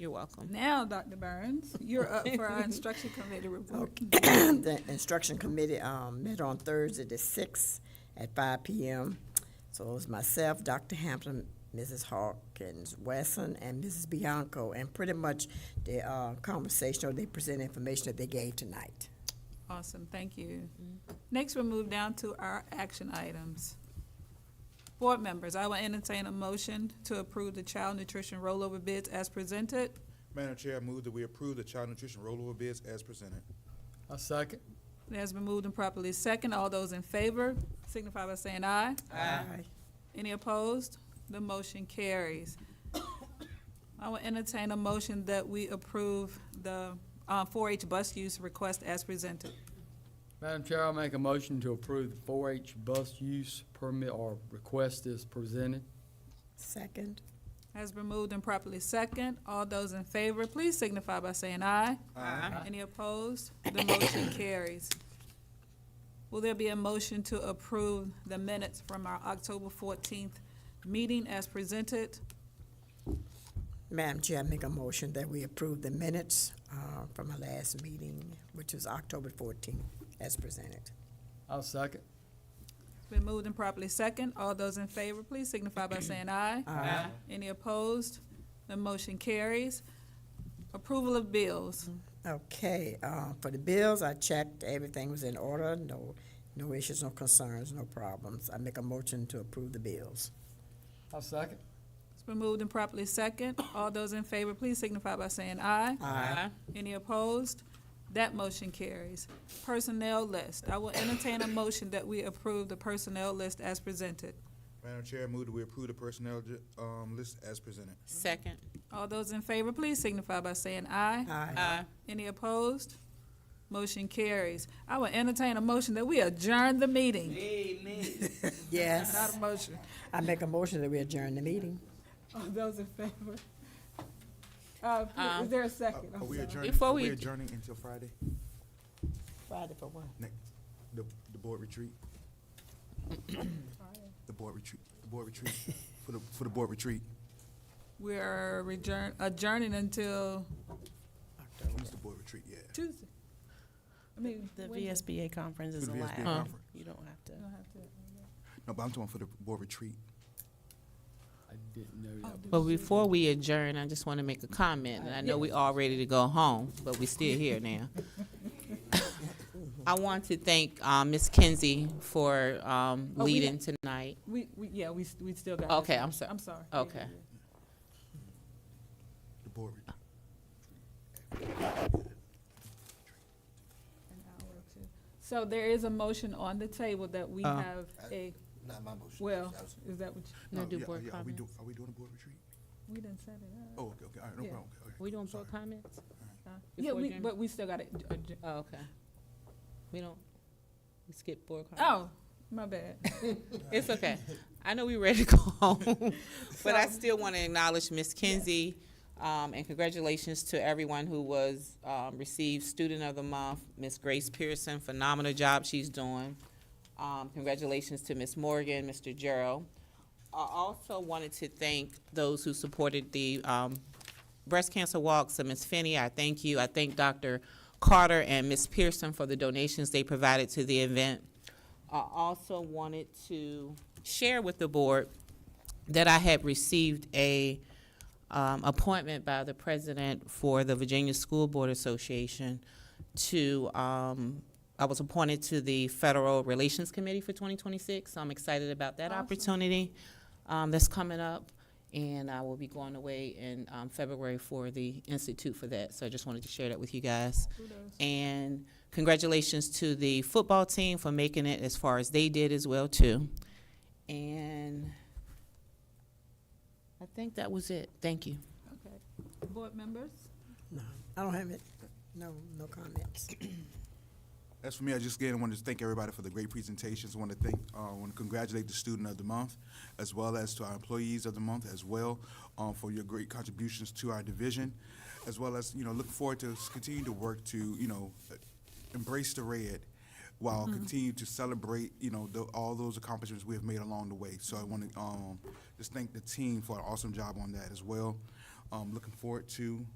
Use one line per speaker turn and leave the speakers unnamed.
You're welcome.
Now, Dr. Burns, you're up for our instruction committee report.
The instruction committee um, met on Thursday the sixth at five PM. So it was myself, Dr. Hampton, Mrs. Hawkins Wesson, and Mrs. Bianco, and pretty much the uh, conversation or they presented information that they gave tonight.
Awesome, thank you. Next, we'll move down to our action items. Board members, I will entertain a motion to approve the child nutrition rollover bids as presented.
Madam Chair, I move that we approve the child nutrition rollover bids as presented.
I second.
It has been moved and properly second. All those in favor signify by saying aye.
Aye.
Any opposed? The motion carries. I will entertain a motion that we approve the uh, 4-H bus use request as presented.
Madam Chair, I'll make a motion to approve the 4-H bus use permit or request is presented.
Second.
Has been moved and properly second. All those in favor, please signify by saying aye. Aye. Any opposed? The motion carries. Will there be a motion to approve the minutes from our October fourteenth meeting as presented?
Madam Chair, I make a motion that we approve the minutes uh, from our last meeting, which was October fourteenth, as presented.
I'll second.
Been moved and properly second. All those in favor, please signify by saying aye. Aye. Any opposed? The motion carries. Approval of bills.
Okay, uh, for the bills, I checked, everything was in order, no, no issues, no concerns, no problems. I make a motion to approve the bills.
I'll second.
It's been moved and properly second. All those in favor, please signify by saying aye.
Aye.
Any opposed? That motion carries. Personnel list. I will entertain a motion that we approve the personnel list as presented.
Madam Chair, I move that we approve the personnel ju- um, list as presented.
Second.
All those in favor, please signify by saying aye.
Aye.
Aye.
Any opposed? Motion carries. I will entertain a motion that we adjourn the meeting.
Yes,
Not a motion.
I make a motion that we adjourn the meeting.
All those in favor? Uh,
Um,
is there a
Uh,
second?
Are
I'm
we
sorry.
adjourning,
Before
are
we
we
ad-
adjourning until Friday,
Friday for what?
next, the, the board retreat? The board retreat, the board retreat, for the, for the board retreat.
We're adjourn, adjourning until
When's the board retreat, yeah.
Tuesday. I mean,
The
when-
VSBA conference is
For the VSBA
allowed.
conference.
You don't have to.
You don't have to-
No, but I'm talking for the board retreat.
I didn't know that.
But before we adjourn, I just want to make a comment, and I know we all ready to go home, but we still here now. I want to thank, uh Ms. Kinsey for, um,
Oh, we-
leading tonight.
We, we, yeah, we, s- we still got.
Okay, I'm sorry.
I'm sorry.
Okay.
The board retreat.
So there is a motion on the table that we
Uh,
have a,
Not my motion.
well, is that what, you-
No, do
Oh, yeah,
board
yeah, Are we
comments.
doing, are we doing a board retreat?
we didn't set it up.
Oh, okay, okay, all right, no
Yeah.
problem. okay, okay.
We doing
Sorry.
board comments?
huh? Yeah,
Before
we,
adjourn-
but we still got it.
Oh, okay. We don't, we skip board comments.
Oh, my bad.
It's okay. I know we ready to go home, but I
So-
still want to acknowledge Ms. Kinsey. Um, and congratulations to everyone who was, um, received Student of the Month, Ms. Grace Pearson, phenomenal job she's doing. Um, congratulations to Ms. Morgan, Mr. Gerald. I also wanted to thank those who supported the, um, breast cancer walk. So Ms. Finney, I thank you. I thank Dr. Carter and Ms. Pearson for the donations they provided to the event. I also wanted to share with the board that I had received a um, appointment by the president for the Virginia School Board Association to, um, I was appointed to the Federal Relations Committee for 2026. So I'm excited about that
Awesome.
opportunity um, that's coming up. And I will be going away in um, February for the Institute for that. So I just wanted to share that with you guys.
Kudos.
And congratulations to the football team for making it as far as they did as well too. And I think that was it. Thank you.
Okay. Board members?
No, I don't have it. No, no comments.
As for me, I just again wanted to thank everybody for the great presentations. I want to thank, uh, want to congratulate the student of the month, as well as to our employees of the month as well, um, for your great contributions to our division, as well as you know look forward to s- continue to work to you know uh, embrace the red, while continue to celebrate you know the, all those accomplishments we have made along the way. So I want to um, just thank the team for an awesome job on that as well. Um, looking forward to